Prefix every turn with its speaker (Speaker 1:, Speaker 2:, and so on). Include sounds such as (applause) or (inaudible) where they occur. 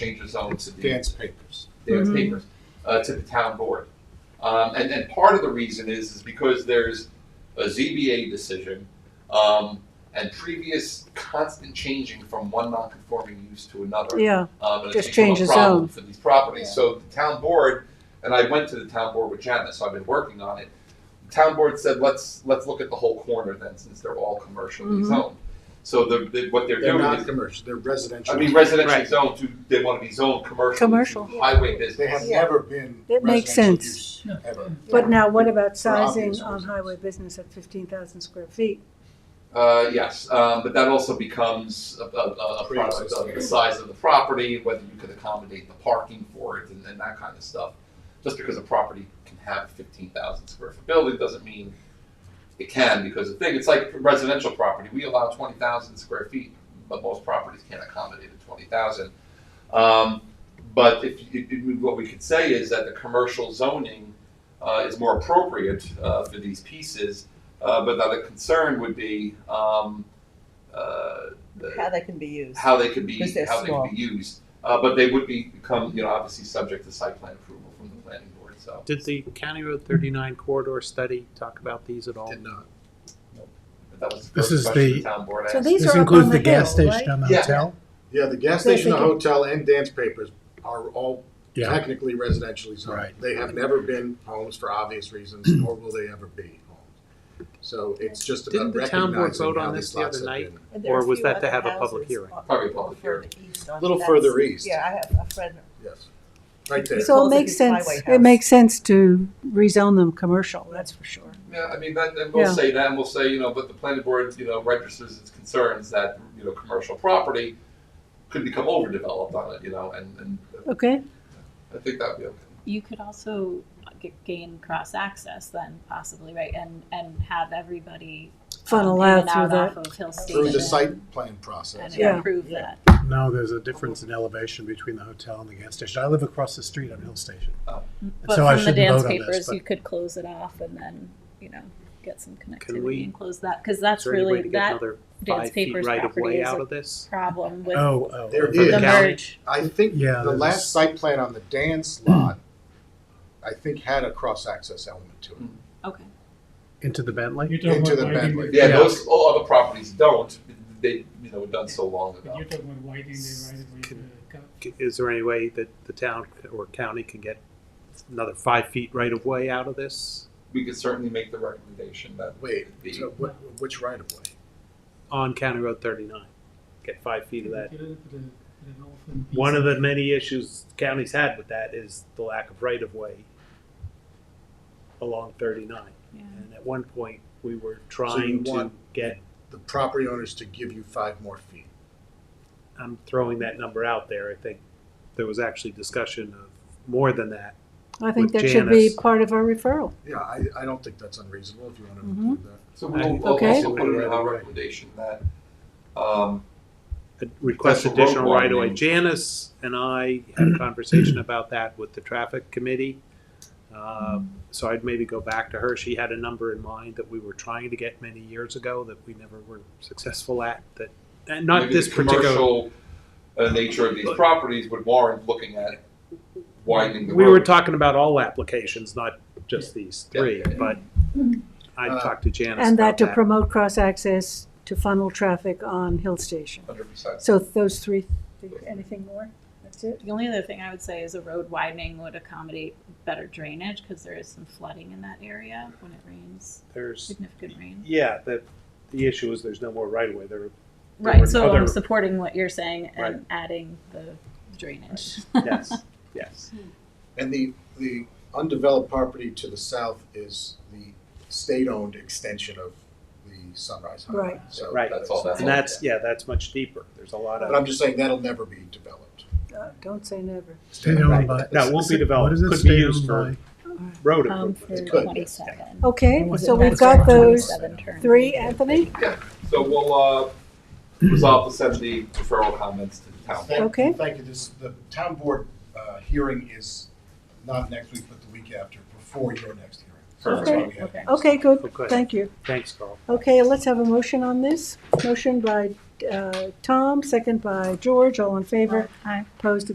Speaker 1: change the zones
Speaker 2: It's
Speaker 1: to the,
Speaker 2: advance papers.
Speaker 1: their
Speaker 3: Mhm.
Speaker 1: papers, uh, to the town board. Um, and, and part of the reason is, is because there's a ZBA decision, um, and previous constant changing from one non-conforming use to another.
Speaker 3: Yeah,
Speaker 1: Um, and it's
Speaker 3: Just
Speaker 1: become a
Speaker 3: change the
Speaker 1: problem
Speaker 3: zone.
Speaker 1: For these properties, so the town board, and I went to the town board with Janice, so I've been working on it. The Town board said, let's, let's look at the whole corner then, since they're all commercially
Speaker 3: Mhm.
Speaker 1: zoned. So the, the, what they're
Speaker 2: They're
Speaker 1: doing
Speaker 2: not
Speaker 1: is,
Speaker 2: commercial, they're residential.
Speaker 1: I mean, residential
Speaker 4: Right.
Speaker 1: zone to, they wanna be zoned commercial. to
Speaker 3: Commercial.
Speaker 1: Highway business.
Speaker 2: They have
Speaker 5: Yeah.
Speaker 2: never been
Speaker 3: It makes
Speaker 2: residential
Speaker 3: sense.
Speaker 2: use, ever.
Speaker 3: but now what about
Speaker 2: For obvious
Speaker 3: sizing on
Speaker 2: reasons.
Speaker 3: highway business at fifteen thousand square feet?
Speaker 1: Uh, yes, um, but that also becomes a, a, a a product of the size of the property, whether you could accommodate the parking for it and, and that kind of stuff. Just because a property can have a fifteen thousand square foot building doesn't mean it can, because the thing, it's like residential property, we allow twenty thousand square feet, but most properties can't accommodate a twenty thousand. Um, but if, you- you- what we could say is that the commercial zoning, uh, is more appropriate, uh, for these pieces uh, but now the concern would be um, uh, the-
Speaker 5: how they can be used.
Speaker 1: how they could be
Speaker 5: Because they're
Speaker 1: how they
Speaker 5: small.
Speaker 1: could be used. Uh, but they would be become you know obviously subject to site plan approval from the planning board. So
Speaker 4: Did the County Road 39 corridor study talk about these at all?
Speaker 2: Did not.
Speaker 1: but that was the
Speaker 6: This
Speaker 1: first
Speaker 6: is
Speaker 1: question
Speaker 6: the-
Speaker 1: town board
Speaker 3: So
Speaker 1: asked.
Speaker 3: these
Speaker 6: This
Speaker 3: are up
Speaker 6: includes
Speaker 3: on
Speaker 6: the
Speaker 3: the hill,
Speaker 6: gas
Speaker 3: right?
Speaker 6: station and the
Speaker 1: Yeah.
Speaker 6: hotel?
Speaker 2: Yeah, the gas
Speaker 3: They're
Speaker 2: station, the
Speaker 3: thinking-
Speaker 2: hotel, and dance papers are all
Speaker 6: Yeah.
Speaker 2: technically residentially zoned.
Speaker 6: Right.
Speaker 2: They have never been homes for obvious
Speaker 4: (clears throat)
Speaker 2: reasons, nor will they ever be homes. So it's just about
Speaker 4: Didn't the town board
Speaker 2: recognizing
Speaker 4: vote
Speaker 2: how
Speaker 4: on
Speaker 2: these
Speaker 4: this the
Speaker 2: lots
Speaker 4: other
Speaker 2: have
Speaker 4: night?
Speaker 2: been.
Speaker 5: And there are
Speaker 4: Or was
Speaker 5: few
Speaker 4: that to
Speaker 5: other
Speaker 4: have a public
Speaker 5: houses
Speaker 4: hearing?
Speaker 5: up-
Speaker 1: Probably a public
Speaker 5: further east on-
Speaker 2: A little
Speaker 5: that's-
Speaker 2: further east,
Speaker 5: Yeah, I have a friend,
Speaker 2: yes. Right there.
Speaker 3: So it
Speaker 5: Well, if
Speaker 3: makes
Speaker 5: it's highway
Speaker 3: sense,
Speaker 5: house.
Speaker 3: it makes sense to rezone them commercial, that's for sure.
Speaker 1: Yeah, I mean that, and we'll
Speaker 3: Yeah.
Speaker 1: say that, and we'll say you know, but the planning board you know registers its concerns that you know commercial property could become overdeveloped on it, you know, and, and
Speaker 3: Okay,
Speaker 1: I think that would be okay.
Speaker 7: you could also g- gain cross access then possibly right and and have everybody
Speaker 3: funnel
Speaker 7: um,
Speaker 3: out
Speaker 7: in and
Speaker 3: through
Speaker 7: off
Speaker 3: that.
Speaker 7: of hill station
Speaker 2: Through the site plan process.
Speaker 7: and
Speaker 3: Yeah.
Speaker 7: improve
Speaker 2: Yeah.
Speaker 7: that
Speaker 6: No, there's a difference in elevation between the hotel and the gas station. I live across the street on Hill Station.
Speaker 1: Oh.
Speaker 6: And
Speaker 7: but
Speaker 6: so I
Speaker 7: from the
Speaker 6: shouldn't
Speaker 7: dance
Speaker 6: vote on this,
Speaker 7: papers
Speaker 6: but-
Speaker 7: you could close it off and then you know get some connectivity
Speaker 4: we-
Speaker 7: and close that because
Speaker 4: Is
Speaker 7: that's
Speaker 4: there any way
Speaker 7: really
Speaker 4: to get
Speaker 7: that
Speaker 4: another
Speaker 7: dance
Speaker 4: five feet
Speaker 7: papers
Speaker 4: right of
Speaker 7: property
Speaker 4: way
Speaker 7: is
Speaker 4: out
Speaker 7: a
Speaker 4: of this?
Speaker 7: problem with
Speaker 6: Oh, oh.
Speaker 2: There
Speaker 6: oh.
Speaker 2: is.
Speaker 7: the
Speaker 4: county.
Speaker 7: merge
Speaker 2: I think
Speaker 6: Yeah,
Speaker 2: the
Speaker 6: there's-
Speaker 2: last site plan on the dance lot, I think had a cross-access element to it.
Speaker 7: okay
Speaker 6: Into the Bentley?
Speaker 8: You're talking
Speaker 2: Into
Speaker 8: about
Speaker 2: the
Speaker 8: widening
Speaker 2: Bentley.
Speaker 1: Yeah,
Speaker 6: Yeah.
Speaker 1: those all other properties don't. They you know were done so long ago.
Speaker 8: But you're talking about widening the right of way to the co-
Speaker 4: C- Is there any way that the town or county can get another five feet right of way out of this
Speaker 1: we could certainly make the recommendation that
Speaker 2: Wait,
Speaker 1: The-
Speaker 2: so what, which right of way?
Speaker 4: on County Road 39? Get five feet of that.
Speaker 8: Get rid of the- the north and east.
Speaker 4: One of the many issues counties had with that is the lack of right of way along 39.
Speaker 7: yeah.
Speaker 4: And at one point, we were
Speaker 2: you
Speaker 4: trying to
Speaker 2: want-
Speaker 4: get
Speaker 2: The property owners to give you five more feet.
Speaker 4: I'm throwing that number out there. I think there was actually discussion of more than that.
Speaker 3: I think
Speaker 4: With
Speaker 3: that should be
Speaker 4: Janice.
Speaker 3: part of our referral.
Speaker 2: Yeah, I, I don't think that's unreasonable if you want to
Speaker 3: Mhm.
Speaker 2: include that.
Speaker 1: So we'll, we'll
Speaker 3: Okay.
Speaker 1: also put in our recommendation that, um,
Speaker 4: Request
Speaker 1: That's a road
Speaker 4: additional right of way.
Speaker 1: widening.
Speaker 4: Janice and I had a conversation about that with the traffic committee. Um, So I'd maybe go back to her. She had a number in mind that we were trying to get many years ago that we never were successful at, that, and not
Speaker 1: maybe
Speaker 4: this
Speaker 1: the
Speaker 4: particular.
Speaker 1: commercial uh, nature of these properties would warrant looking at widening the road.
Speaker 4: We were talking about all applications, not just these
Speaker 1: Yeah.
Speaker 4: three, but I
Speaker 2: Uh,
Speaker 4: talked to Janice
Speaker 3: And that
Speaker 4: about
Speaker 3: to
Speaker 4: that.
Speaker 3: promote cross-access to funnel traffic on Hill Station.
Speaker 1: Hundred percent.
Speaker 3: So those three, anything more? That's it?
Speaker 7: The only other thing I would say is a road widening would accommodate better drainage because there is some flooding in that area when it rains,
Speaker 4: There's,
Speaker 7: significant rain.
Speaker 4: yeah, the, the issue is there's no more right of way. There There were
Speaker 7: Right, so
Speaker 4: other-
Speaker 7: I'm supporting what you're saying
Speaker 4: Right.
Speaker 7: and adding the drainage.
Speaker 3: (laughs)
Speaker 4: Yes, yes.
Speaker 2: And the, the undeveloped property to the south is the state-owned extension of the Sunrise Highway.
Speaker 3: Right.
Speaker 2: So
Speaker 4: Right.
Speaker 1: That's all
Speaker 4: And that's, yeah, that's much deeper. There's a lot
Speaker 2: But I'm
Speaker 4: of,
Speaker 2: just saying that'll never be developed.
Speaker 3: Uh, Don't say never.
Speaker 6: State-owned by.
Speaker 4: No, it won't be developed.
Speaker 6: What is it,
Speaker 4: Could be used
Speaker 6: state-owned
Speaker 4: road
Speaker 7: (laughs) Um,
Speaker 4: improvement.
Speaker 7: for
Speaker 2: It could.
Speaker 7: twenty-seven.
Speaker 3: Okay,
Speaker 7: Was it
Speaker 3: so we've
Speaker 7: back
Speaker 3: got
Speaker 7: to
Speaker 3: those
Speaker 7: 27 turn?
Speaker 3: three, Anthony?
Speaker 1: So we'll, uh, resolve to send the referral comments to the town.
Speaker 2: Thank-
Speaker 3: Okay.
Speaker 2: Thank you. This, the town board, uh, hearing is not next week, but the week after, before your next hearing. So that's why we have-
Speaker 7: Okay.
Speaker 3: Okay, good,
Speaker 4: Okay.
Speaker 3: thank you.
Speaker 4: Thanks, Carl.
Speaker 3: Okay, let's have a motion on this. Motion by uh, Tom, second by George, all in favor.
Speaker 7: Aye.
Speaker 3: Opposed,